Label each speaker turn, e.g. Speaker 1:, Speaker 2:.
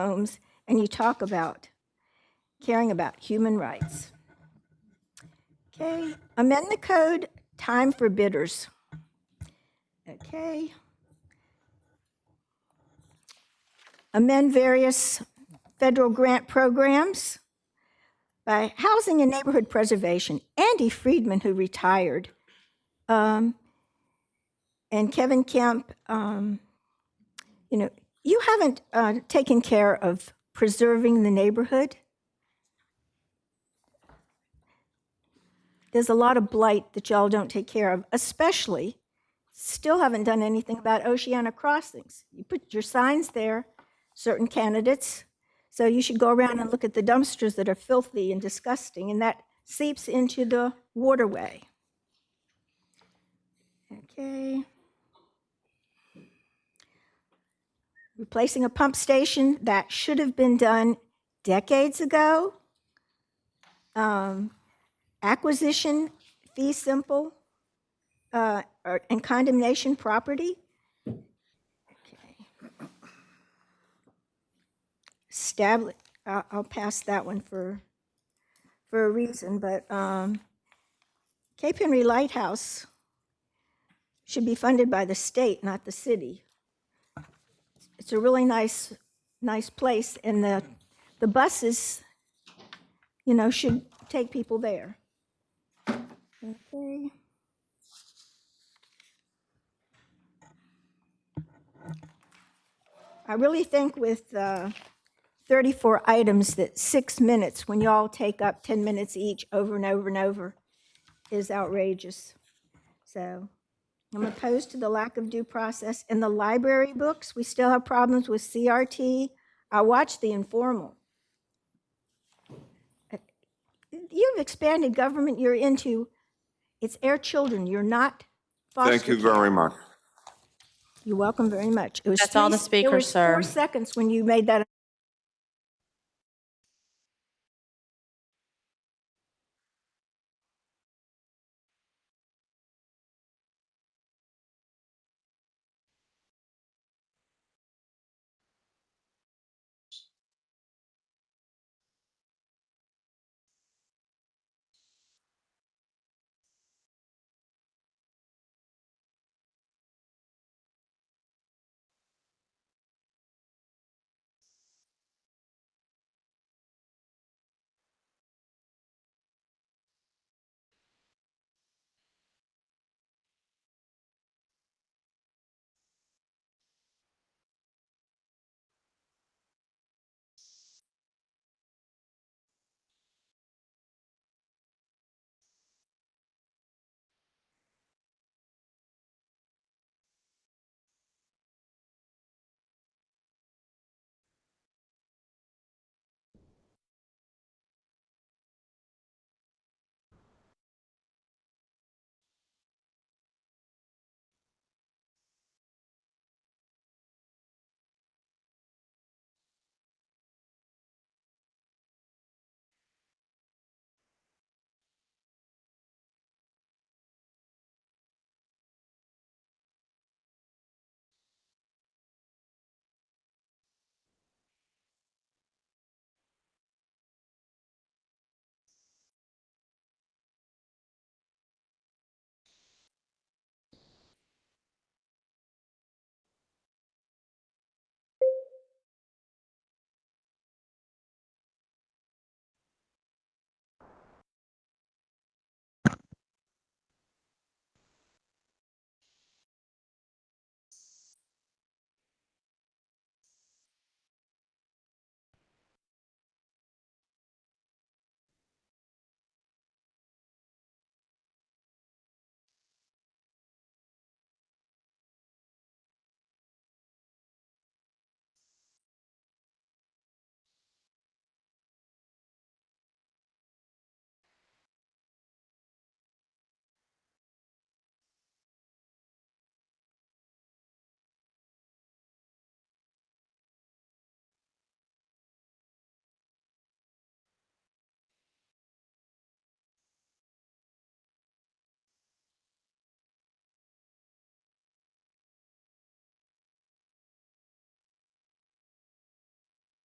Speaker 1: homes, and you talk about caring about human rights. Okay, amend the code, time for bidders. Okay. Amend various federal grant programs by Housing and Neighborhood Preservation, Andy Friedman, who retired, um, and Kevin Kemp, um, you know, you haven't uh, taken care of preserving the neighborhood. There's a lot of blight that y'all don't take care of, especially still haven't done anything about Oceana crossings. You put your signs there, certain candidates. So you should go around and look at the dumpsters that are filthy and disgusting, and that seeps into the waterway. Okay. Replacing a pump station that should have been done decades ago. Um, Acquisition, fee simple, uh, or- and condemnation property. Okay. Stabli, I'll, I'll pass that one for, for a reason, but, um, Cape Henry Lighthouse should be funded by the state, not the city. It's a really nice, nice place, and the, the buses, you know, should take people there. Okay. I really think with uh, 34 items that six minutes, when y'all take up 10 minutes each over and over and over, is outrageous. So I'm opposed to the lack of due process. In the library books, we still have problems with CRT. I watched The Informal. Uh, You've expanded government you're into, it's air children, you're not foster
Speaker 2: Thank you
Speaker 1: care.
Speaker 2: very much.
Speaker 1: You're welcome very much. It was
Speaker 3: That's all
Speaker 1: three-
Speaker 3: the speaker,
Speaker 1: It was four
Speaker 3: sir.
Speaker 1: seconds when you made that